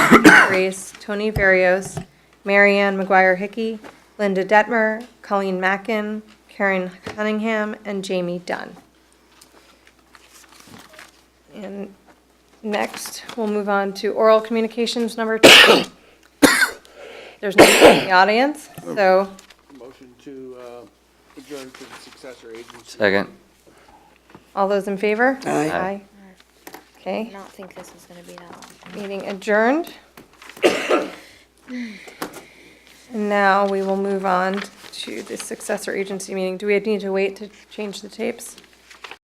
Reese, Tony Varios, Marianne McGuire Hickey, Linda Detmer, Colleen Mackin, Karen Cunningham, and Jamie Dunn. And next, we'll move on to oral communications number two. There's nobody in the audience, so Motion to uh, adjourn to the successor agency. Second. all those in favor? Aye. Aye. Okay. Did not think this was gonna be that long. Meeting adjourned. And now we will move on to the successor agency meeting. Do we need to wait to change the tapes?